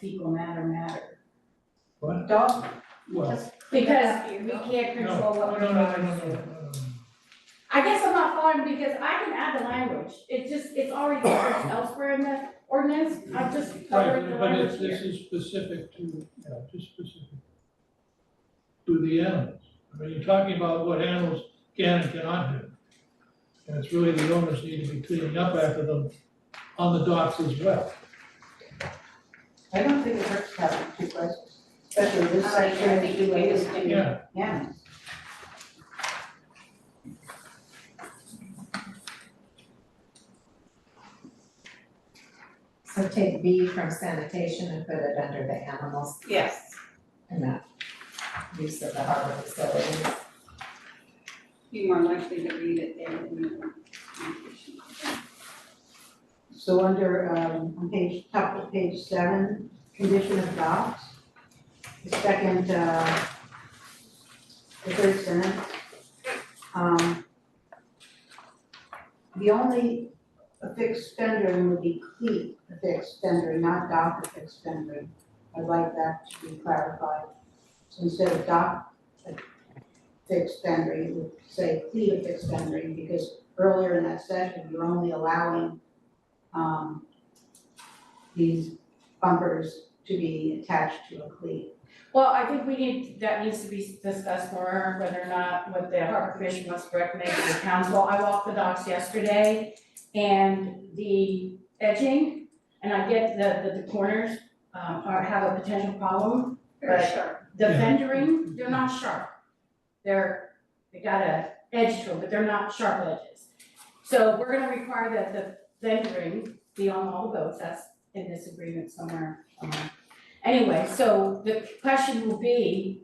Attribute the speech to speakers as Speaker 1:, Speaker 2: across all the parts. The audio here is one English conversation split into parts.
Speaker 1: fecal matter matter.
Speaker 2: What?
Speaker 1: Don't,
Speaker 2: Well,
Speaker 1: because we can't
Speaker 2: no,
Speaker 1: control
Speaker 2: no,
Speaker 1: what
Speaker 2: no,
Speaker 1: we're
Speaker 2: no,
Speaker 1: doing.
Speaker 2: no, no, no, no.
Speaker 1: I guess I'm not following because I can add the language, it just, it's already referenced elsewhere in the ordinance, I'm just covering the
Speaker 2: Right, but
Speaker 1: language
Speaker 2: it's,
Speaker 1: here.
Speaker 2: this is specific to, yeah, just specific to the animals. I mean, you're talking about what animals can and cannot do. And it's really the owners need to be cleaning up after them on the docks as well.
Speaker 3: I don't think it hurts to have two questions, especially this
Speaker 1: I think-
Speaker 3: section
Speaker 1: I
Speaker 3: is
Speaker 1: think
Speaker 3: the
Speaker 1: you
Speaker 3: latest thing.
Speaker 2: Yeah,
Speaker 3: Yeah.
Speaker 4: So take B from sanitation and put it under the animals
Speaker 3: Yes.
Speaker 4: and that use of the harbor facilities.
Speaker 5: be more likely to read it there than you are.
Speaker 3: So under, um, on page, top of page seven, condition of docks. The second, uh, the third sentence. Um, the only affixed fendering would be cleat affixed fendering, not dock affixed fendering. I'd like that to be clarified. So instead of dock affixed fendering, it would say cleat affixed fendering, because earlier in that session, you're only allowing um, these bumpers to be attached to a cleat.
Speaker 1: Well, I think we need, that needs to be discussed more, whether or not what the harbor commission must recommend to the council. I walked the docks yesterday and the edging, and I get that the, the corners, um, are, have a potential problem.
Speaker 5: Very
Speaker 1: But
Speaker 5: sharp.
Speaker 1: the
Speaker 2: Yeah.
Speaker 1: fendering, they're not sharp. They're, they got a edge to them, but they're not sharp edges. So we're gonna require that the fendering be on all the boats, that's in this agreement somewhere. um, somewhere. Anyway, so the question will be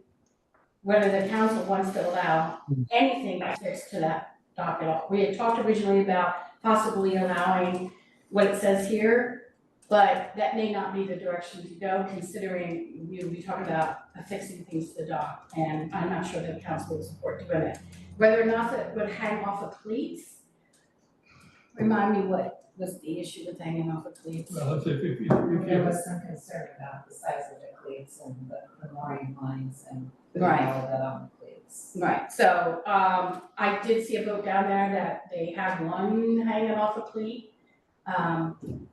Speaker 1: whether the council wants to allow anything affixed to that dock at all. We had talked originally about possibly allowing what it says here, but that may not be the direction to go considering we, we talked about affixing things to the dock and I'm not sure that council would support doing it. Whether or not that would hang off of cleats, remind me what was the issue with hanging off of cleats?
Speaker 2: well, if, if, if,
Speaker 1: Mm-hmm.
Speaker 2: if,
Speaker 4: There
Speaker 2: you-
Speaker 4: was some concern about the size of the cleats and the the mooring lines and putting all
Speaker 1: Right.
Speaker 4: of that on the cleats.
Speaker 1: Right, so, um, I did see a boat down there that they had one hanging off a cleat. Um,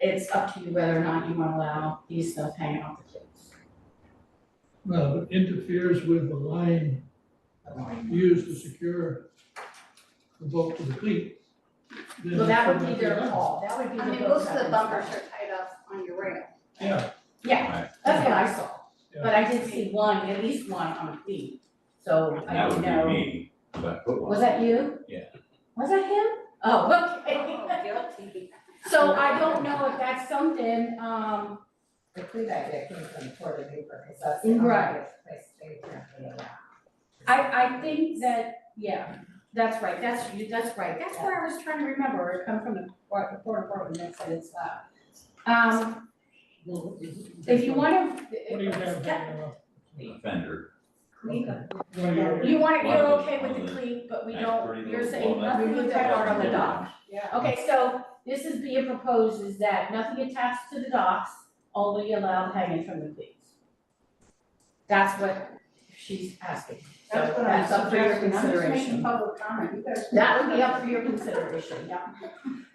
Speaker 1: it's up to you whether or not you wanna allow these stuff hanging off the cleats.
Speaker 2: well, it interferes with the line
Speaker 4: the mooring lines.
Speaker 2: used to secure the boat to the cleat. then
Speaker 1: Well, that would
Speaker 2: it's
Speaker 1: be
Speaker 2: not
Speaker 1: their
Speaker 2: allowed.
Speaker 1: call, that would be the
Speaker 5: I
Speaker 1: boat's.
Speaker 5: mean, most of the
Speaker 1: up
Speaker 5: bumpers
Speaker 1: to
Speaker 5: are tied up on your rail.
Speaker 2: Yeah,
Speaker 1: them. Yeah, that's what I saw, but I did see one, at least one on a cleat, so I
Speaker 6: That
Speaker 1: don't
Speaker 6: would
Speaker 1: know.
Speaker 6: be me, but I put one.
Speaker 1: Was that you?
Speaker 6: Yeah.
Speaker 1: Was that him? Oh, okay.
Speaker 5: guilty.
Speaker 1: So I don't know if that's something, um,
Speaker 4: The cleat idea came from the Port of Newport, because that's the only
Speaker 1: Right.
Speaker 4: place they currently allow.
Speaker 1: I, I think that, yeah, that's right, that's, you- that's right, that's where I was trying to remember, it come from the port, the port of Portland, that said it's loud. Um,
Speaker 2: Well,
Speaker 1: if you wanna.
Speaker 2: What do you have hanging off?
Speaker 6: The Fender.
Speaker 2: Well, you're-
Speaker 1: You want, you're
Speaker 6: Why?
Speaker 1: okay with the cleat, but we
Speaker 6: Nice
Speaker 1: don't,
Speaker 6: pretty
Speaker 1: you're
Speaker 6: little
Speaker 1: saying
Speaker 6: walnut.
Speaker 1: nothing with that part on the
Speaker 6: Yeah.
Speaker 1: dock. Okay, so this is being proposed is that nothing attached to the docks, only allowed hanging from the cleats. That's what she's asking, so that's up for your consideration.
Speaker 3: public comment, you guys.
Speaker 1: That would be up for your consideration, yeah.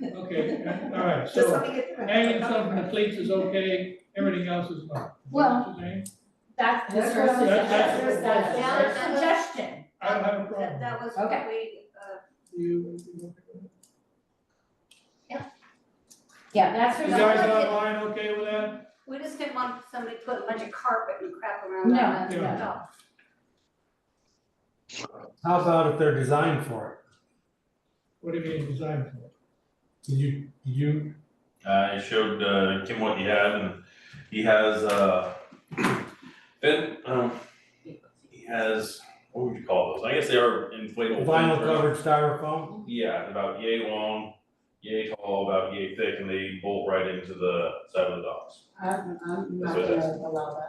Speaker 2: Okay, all right,
Speaker 3: Just
Speaker 2: so
Speaker 3: let me get through. it.
Speaker 2: hanging something that cleats is okay, everything else is not.
Speaker 1: Well- That's her
Speaker 4: That's what I'm-
Speaker 1: suggestion, that's her
Speaker 2: that's-
Speaker 5: that's-
Speaker 1: suggestion.
Speaker 2: I don't have a
Speaker 5: That,
Speaker 2: problem.
Speaker 5: that was
Speaker 1: Okay.
Speaker 5: what we, uh,
Speaker 2: You, you
Speaker 1: Yeah, that's her
Speaker 2: you
Speaker 5: No.
Speaker 2: guys
Speaker 1: suggestion.
Speaker 2: online okay with that?
Speaker 5: we just didn't want somebody putting a bunch of carpet and crap around that,
Speaker 2: No, no.
Speaker 5: no.
Speaker 7: How about if they're designed for
Speaker 2: What do you mean design for?
Speaker 7: it? Did you, did you,
Speaker 8: I showed uh, Kim what he had, and he has uh, fin. Um, he has what would you call those? I guess they are inflatable.
Speaker 7: vinyl
Speaker 8: fins, right?
Speaker 7: covered styrofoam?
Speaker 8: Yeah, about yay long, yay tall, about yay thick, and they bolt right into the side of the docks.
Speaker 3: I'm, I'm not
Speaker 8: That's what it
Speaker 3: gonna allow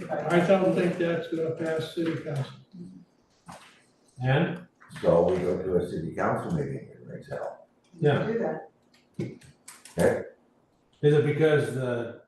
Speaker 3: that.
Speaker 2: I don't think that's gonna pass city council.
Speaker 7: And,
Speaker 9: So we go to a city council meeting in Rexdale.
Speaker 7: yeah,
Speaker 3: Do that.
Speaker 7: is it because the